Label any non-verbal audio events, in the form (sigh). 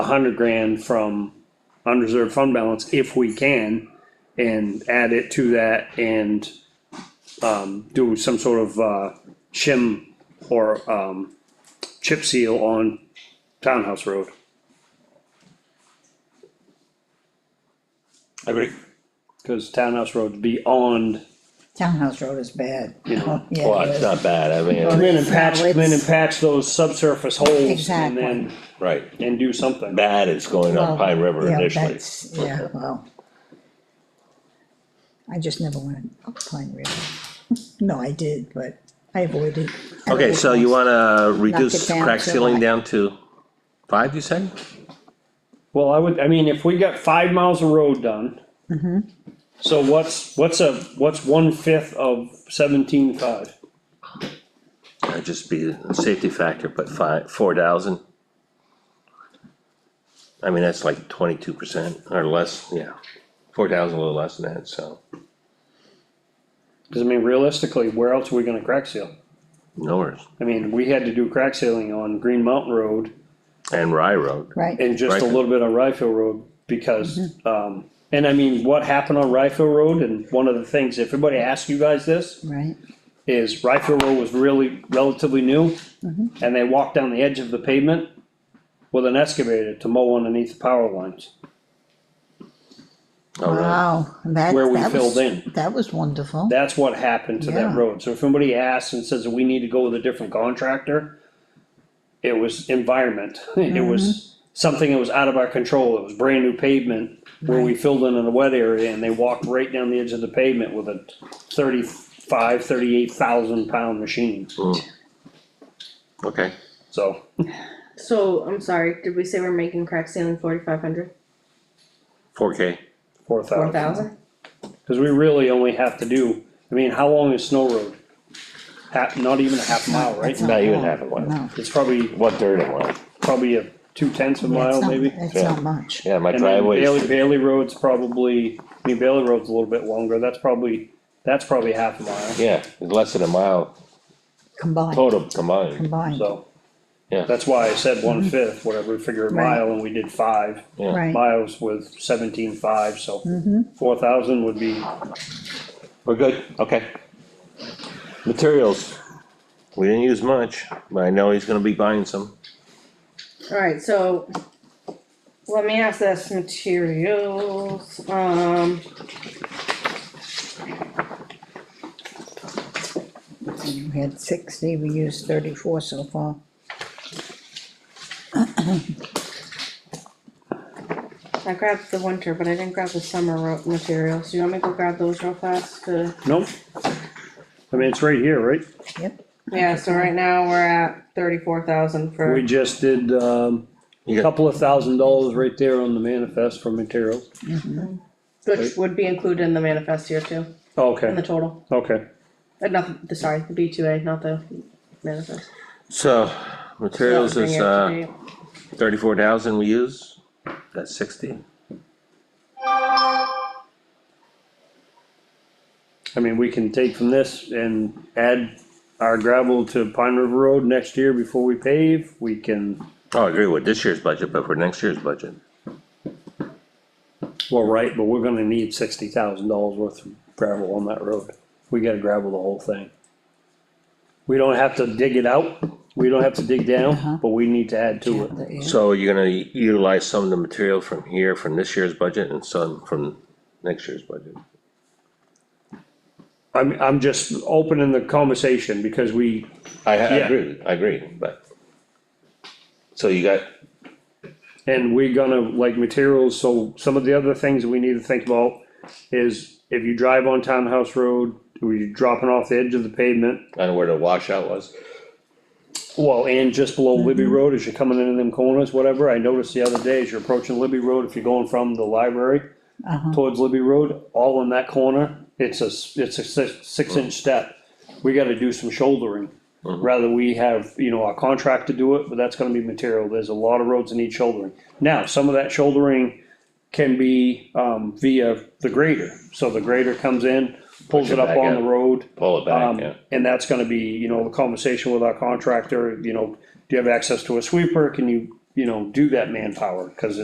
hundred grand from unreserved fund balance if we can. And add it to that and, um, do some sort of, uh, shim or, um, chip seal on Townhouse Road. I agree. Cause Townhouse Road's beyond, Townhouse Road is bad. you know. (laughs) Yeah, Well, it it's is. not bad, I Come mean, in and patch, come No, in and it's- patch those subsurface holes and Exactly. then, right, and do something. bad is going Well, on Pine River yeah, initially. uh, that's- Yeah, well. I just never went up Pine River. (laughs) No, I did, but I avoided. at Okay, all so you costs. wanna Knock it reduce down crack to ceiling what? down to five, you said? Well, I would, I mean, if we got five miles of road done. Mm-hmm. So what's, what's a, what's one fifth of seventeen five? That'd just be a safety factor, but five, four thousand. I mean, that's like twenty-two percent or less, yeah, four thousand, a little less than that, so, Cause I mean, realistically, where else are we gonna crack seal? no worries. I mean, we had to do crack sealing on Green Mountain Road And Rye Road, Right, and just a Right. little bit on Rifle Road because, um, and I mean, what happened on Rifle Road and one of the things, if everybody asks you guys this, right, is Rifle Row was really relatively new. And they walked down the edge of the pavement with an excavator to mow underneath the power lines, oh, really? wow, that, where we that filled was, in. that was wonderful, That's what happened to that Yeah. road, so if somebody asks and says, we need to go with a different contractor. It was environment, (laughs) it was something that was out of our control, it was brand new pavement. Where we filled in in a wet area and they walked right down the edge of the pavement with a thirty-five, thirty-eight thousand pound machine, Okay, so. So, I'm sorry, did we say we're making crack ceiling forty-five hundred, four K, Four four thousand. thousand? Cause we really only have to do, I mean, how long is Snow Road? Half, not even a half mile, right? That's not even bad. half a mile. no. It's probably, what dirt it was, probably a two tenths of a Yeah, it's mile, not- maybe. It's Yeah. not much, yeah, my And then driveway. Bailey, Bailey Road's probably, I mean, Bailey Road's a little bit longer, that's probably, that's probably half a mile, Yeah, it's less than a mile combined, total combined, combined, so. Yeah. That's why I said one fifth, whatever, figure a Mm-hmm. Right. mile, and we did five yeah, right, Mm-hmm. miles with seventeen five, so. Four thousand would be, we're good, okay. Materials, we didn't use much, but I know he's gonna be buying some, Alright, so, let me ask this, materials, um. you had sixty, we used thirty-four so far. I grabbed the winter, but I didn't grab the summer ro- materials, you want me to go grab those real fast to? nope. I mean, it's right here, right? Yep, Yeah, so right now we're at thirty-four thousand We for, just did, um, You got- couple of thousand dollars right there on the manifest for materials. which would be included in the manifest here too, in the Okay, total, okay. uh, not, the- sorry, the B two A, not the manifest. so, materials Bring is, it up to uh. date. Thirty-four thousand we use, that's sixty. I mean, we can take from this and add our gravel to Pine River Road next year before we pave. We can, Oh, I agree with this year's budget, but for next year's budget, well, right, but we're gonna need sixty thousand dollars worth of gravel on that road. We gotta gravel the whole thing. We don't have to dig it out, we don't have to dig down, but we need to add to it. yeah, so you're gonna utilize some of the material from here, from this year's budget and some from next year's budget. I'm, I'm just opening the conversation because we, I, I Yeah. agree, I agree, but. So you got, And we're gonna, like, materials, so some of the other things we need to think about is if you drive on Townhouse Road, where you're dropping off the edge of the pavement, I don't know where the washout was, well, and just below Libby Road, as you're coming into them corners, whatever, I noticed the other day, as you're approaching Libby Road, if you're going from the library towards Libby Road, all in that corner, it's a, s- it's a six, six inch step. We gotta do some shouldering, Mm-hmm. rather we have, you know, our contractor do it, but that's gonna be material, there's a lot of roads that need shouldering. Now, some of that shouldering can be, um, via the grader, so the grader comes in, pulls Push it it up back on out. the road. pull it back, Um, yeah. and that's gonna be, you know, the conversation with our contractor, you know, do you have access to a sweeper, can you you know, do that manpower, cause